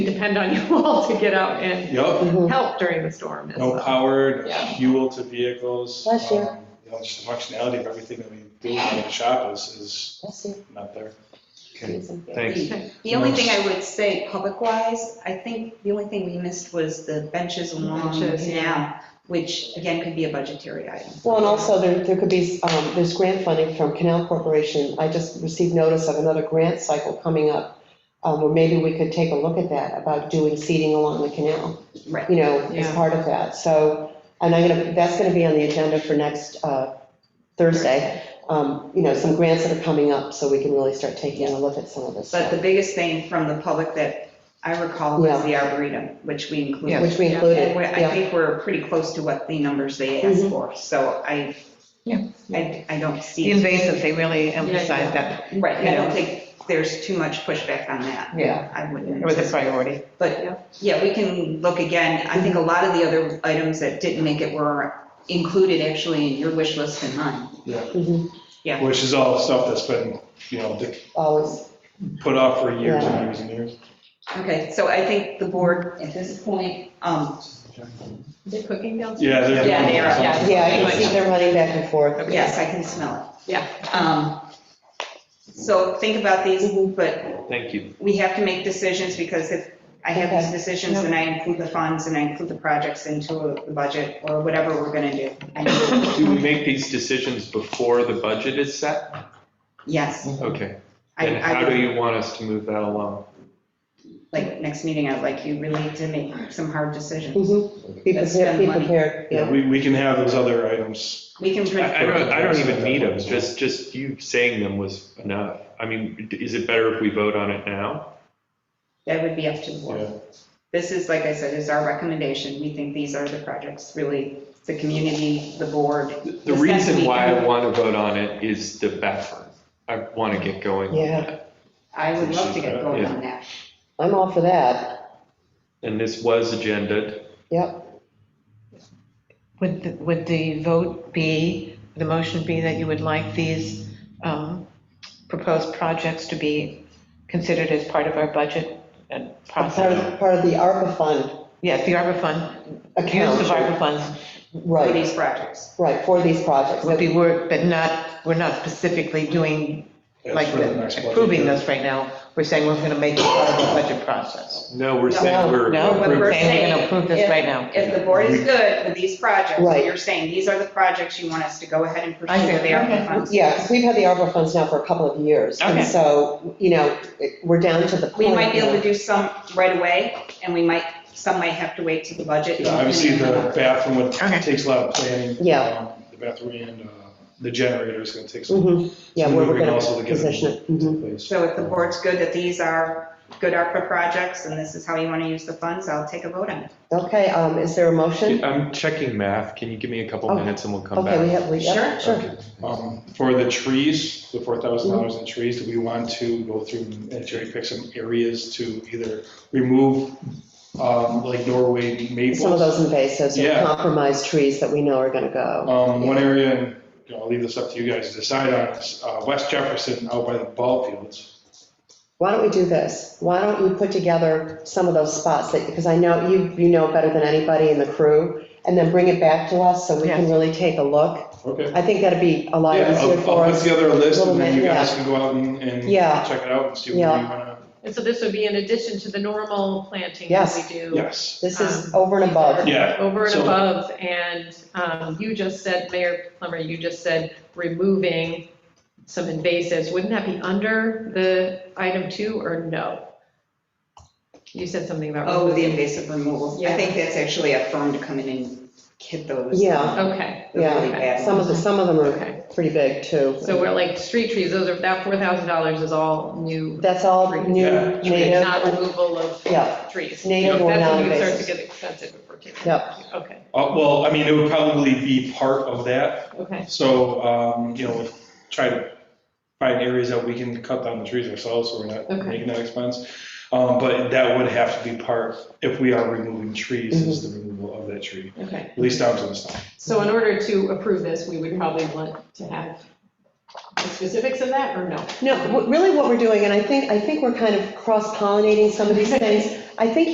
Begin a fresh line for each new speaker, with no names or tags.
depend on you all to get out and
Yep,
Mm-hmm.
help during the storm.
no power,
Yeah.
fuel to vehicles.
Bless you.
um, You know, just the functionality of everything that we do in the shop is, is not there.
Okay,
Okay.
thanks.
The only thing I would say public-wise, I think the only thing we missed was the benches along
Benches, yeah.
now, which again could be a budgetary item.
Well, and also there, there could be, um, there's grant funding from Canal Corporation. I just received notice of another grant cycle coming up, um, where maybe we could take a look at that, about doing seeding along the canal,
Right.
you know, as
Yeah.
part of that. So, and I'm gonna, that's gonna be on the agenda for next, uh, Thursday. Um, you know, some grants that are coming up, so we can really start taking a look at some of this
But
stuff,
the biggest thing from the public that I recall was the arboretum, which we included.
which we
Yeah.
included,
And we- I
yeah.
think we're pretty close to what the numbers they asked for, so I,
Yeah.
I, I don't
The
see,
invasive, they really emphasize that,
right, I don't think there's too much pushback on that.
yeah,
I
it
wouldn't.
was a priority.
But, yeah, we can look again. I think a lot of the other items that didn't make it were included actually in your wish list and mine.
Mhm.
Yeah.
Which is all stuff that's been, you know,
Always,
put off for years and years and years.
Okay, so I think the board at this point, um,
They're cooking downstairs?
Yeah, they're.
Yeah, they are,
yeah.
yeah, I can see they're running back and forth.
yes, I can smell it.
Yeah.
Um, So think about these,
Mm-hmm.
but
Thank you.
we have to make decisions because if I have these decisions
Okay.
and I include the funds and I include the projects into the budget or whatever we're going to do. I mean,
Do we make these decisions before the budget is set?
Yes.
Okay.
I-
And
I
how
would-
do you want us to move that along?
like, next meeting, I'd like you really to make some hard decisions.
Mhm. Be
That's
prepared, be
been money.
prepared,
Yeah,
yeah.
we, we can have those other items.
We can. print-
I I don't, I don't even need them, just, just you saying them was enough. I mean, is it better if we vote on it now?
That would be up to the
Yeah.
board. This is, like I said, is our recommendation. We think these are the projects, really, the community, the board.
The reason why I want to vote on it is the bathroom. I want to get going on
Yeah.
that.
I would love to get going on that.
I'm all for that,
And this was agendaed.
yep.
Would, the- would the vote be, the motion be that you would like these um, proposed projects to be considered as part of our budget and
Part of,
process?
part of the ARPA fund
Yes, the ARPA fund, use of
account,
ARPA funds
For
right,
these projects.
right, for these projects.
would be work, but not, we're not specifically doing,
That's
like,
for the next budget.
approving this right now. We're saying we're going to make it part of the budget process.
No, we're
No,
saying we're.
No,
What
we're saying we're
we're
going
saying
to approve this right now.
If the board is good with these projects,
Right.
you're saying these are the projects you want us to go ahead and pursue.
I see.
They are
Okay.
funds.
Yeah, because we've had the ARPA funds now for a couple of years, and
Okay.
so, you know, it- we're down to the point.
We might be able to
now.
do some right away, and we might, some might have to wait to the budget.
Yeah, Obviously, the bathroom would,
Okay.
takes a lot of planning.
Yeah.
Um, The bathroom and, uh, the generator is gonna take some.
Mhm, Yeah,
some
where we're
moving
gonna
also to get
position it.
into
mhm.
place.
So if the board's good that these are good ARPA projects, and this is how you want to use the funds, I'll take a vote on it.
Okay, um, is there a motion?
I'm checking math. Can you give me a couple
Oh,
minutes and we'll come back?
Okay, we have, we, yeah,
Sure.
sure.
Um, For the trees, the four thousand dollars in trees, do we want to go through and cherry pick some areas to either remove, um, like Norway
Some of
maples?
those invasives or
Yeah.
compromised trees that we know are gonna go.
Um, One area, and you know, I'll leave this up to you guys to decide on, is uh, West Jefferson out by the ball fields.
Why don't we do this? Why don't you put together some of those spots that, because I know you, you know better than anybody in the crew, and then bring it back to us so we can
Yes.
really take a look.
Okay.
I think that'd be a lot
Yeah,
easier
I'll
for
I'll put
us.
together a list and then
Little
you
bit,
guys
yeah.
can go out and and
Yeah.
check it out and see what you
Yeah.
want
And so this would be in addition to the normal planting that
Yes.
we do.
to, yes.
This is over and above.
Yeah.
Over and
So-
above, and um, you just said, Mayor Plummer, you just said removing some invasives. Wouldn't that be under the item two or no? You said something about.
Oh, the
removing-
invasive removal. I
Yeah.
think that's actually a firm to come in and hit those.
Yeah.
Okay,
the really
Yeah.
bad
Some of the,
ones.
some of them
Okay.
are pretty big too.
so we're like, street trees, those are, that $4,000 is all new.
That's all new
Yeah.
native,
Not removal of
Yeah.
trees.
Native or
That's when you start to
non-invasive.
get expensive if we're taking.
Yep.
Okay,
Uh, Well, I mean, it would probably be part of that,
okay.
So, um, you know, try to find areas that we can cut down the trees ourselves, so we're not
Okay.
making that expense. Um, but that would have to be part, if we are removing trees, is the removal of that tree,
Okay,
at least down to the stump.
so in order to approve this, we would probably want to have the specifics of that or no?
No, what- really what we're doing, and I think, I think we're kind of cross-pollinating some of these things. I think